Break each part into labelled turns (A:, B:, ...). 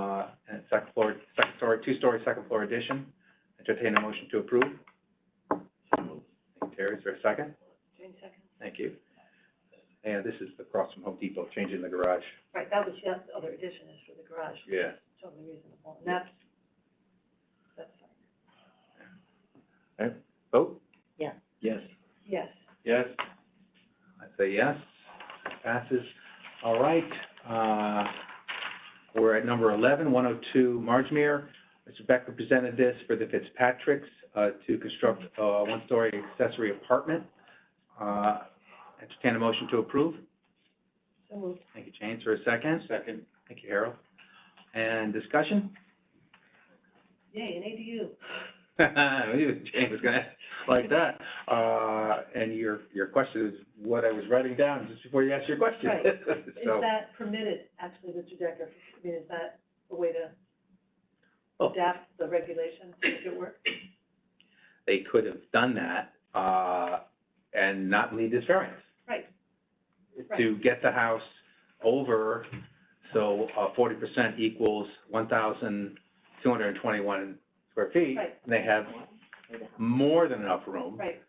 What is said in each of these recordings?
A: uh, two-story second floor addition. Entertain a motion to approve. Thank you, Terry, is there a second?
B: June second.
A: Thank you. And this is across from Home Depot, changing the garage.
B: Right, that was, that's the other addition is for the garage,
A: Yeah.
B: totally reasonable, and that's, that's fine.
A: Vote?
B: Yeah.
A: Yes.
B: Yes,
A: Yes. I say yes, passes. All right, uh, we're at number oh 11, 102 Margemere. Mr. Becker presented this for the Fitzpatricks uh, to construct a one-story accessory apartment. Uh, Entertain a motion to approve.
B: so moved.
A: Thank you, James, for a second. Second. Thank you, Harold. And discussion?
B: Yay, an ADU.
A: I knew James was gonna ask like that. Uh, and your, your question is what I was writing down just before you asked your question.
B: Right. Is
A: So,
B: that permitted, actually, Mr. Decker? I mean, is that a way to
A: Oh.
B: adapt the regulation to make it work?
A: they could have done that, uh, and not need this variance.
B: Right.
A: To get the house over, so, uh, forty percent equals one thousand two hundred and twenty-one square feet.
B: Right.
A: And they have more than enough room.
B: Right,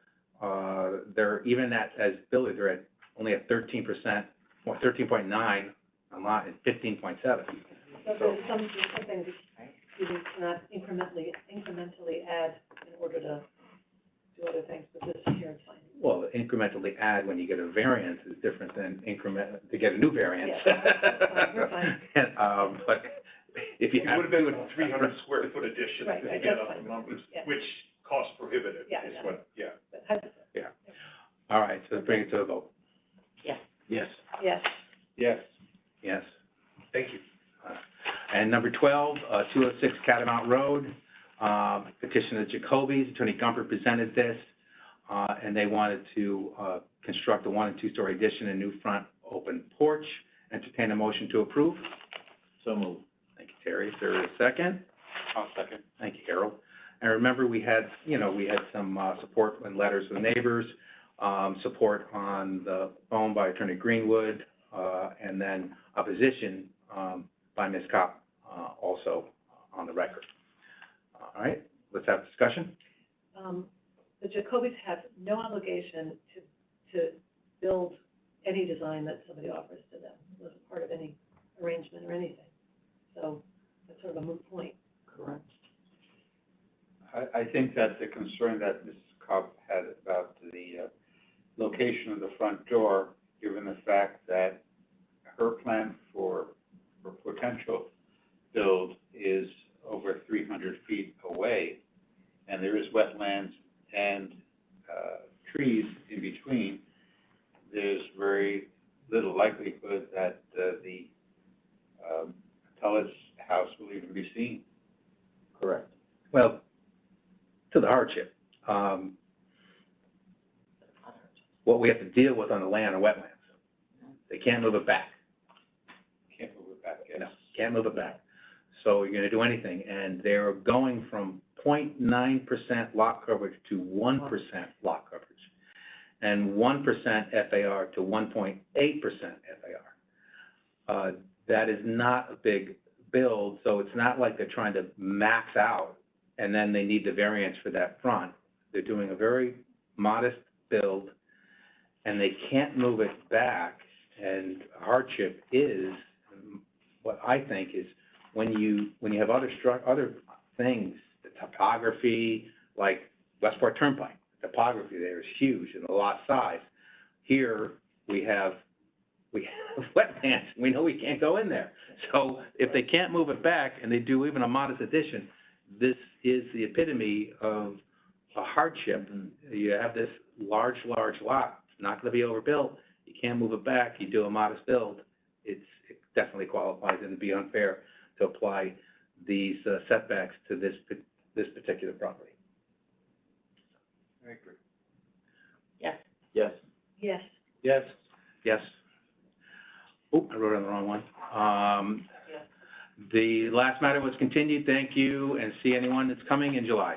A: uh, they're, even at, as Billy, they're at, only at thirteen percent, or thirteen point nine, a lot, and fifteen point seven.
B: so there's some, there's something that you need to not incrementally, incrementally add in order to do other things, but this here is fine.
A: Well, incrementally add when you get a variance is different than increment, to get a new variance.
B: Yeah, that's fine, you're fine.
A: And, um, but if you
C: It
A: have.
C: would have been a three hundred square foot addition
B: Right,
C: to
B: right,
C: get
B: that's
C: up the
B: fine.
C: numbers,
B: Yeah.
C: which cost prohibitive
B: Yeah,
C: is
B: yeah.
C: what, yeah.
B: But has-
A: All right, so bring it to a vote.
B: Yes.
A: Yes.
B: Yes,
C: Yes.
A: Yes.
C: Thank you.
A: And number twelve, uh, two oh six Catamount Road, um, petition of Jacoby's, Attorney Gumper presented this, uh, and they wanted to, uh, construct a one and two-story addition and new front open porch. Entertain a motion to approve.
C: So moved.
A: Thank you, Terry. Is there a second?
C: I'll second.
A: Thank you, Harold. And remember, we had, you know, we had some, uh, support and letters from neighbors, um, support on the phone by Attorney Greenwood, uh, and then opposition, um, by Ms. Cop, uh, also on the record. All right, let's have discussion.
B: um, the Jacobys have no obligation to, to build any design that somebody offers to them. It wasn't part of any arrangement or anything. So that's sort of a moot point. Correct.
D: I, I think that the concern that Mrs. Cobb had about the, uh, location of the front door, given the fact that her plan for, for potential build is over three hundred feet away, and there is wetlands and, uh, trees in between, there's very little likelihood that, uh, the, um, Telus house will even be seen.
A: Correct. Well, to the hardship, um, what we have to deal with on the land and wetlands. They can't move it back.
D: Can't move it back, yes.
A: No, can't move it back. So you're gonna do anything, and they're going from 0.9 percent lot coverage to one percent lot coverage. And one percent FAR to one point eight percent FAR. Uh, that is not a big build, so it's not like they're trying to max out and then they need the variance for that front. They're doing a very modest build and they can't move it back. And hardship is, what I think is when you, when you have other stru- other things, the topography, like Westport Turnpike, topography there is huge and the lot size. Here, we have, we have wetlands, we know we can't go in there. So if they can't move it back and they do even a modest addition, this is the epitome of a hardship. You have this large, large lot, it's not gonna be overbuilt, you can't move it back, you do a modest build, it's, it definitely qualifies, and it'd be unfair to apply these uh, setbacks to this, pa- this particular property.
D: I agree.
C: Yes.
B: Yes.
C: Yes.
A: Yes? Oh, I wrote on the wrong one. Um, the last matter was continued, thank you, and see anyone that's coming in July.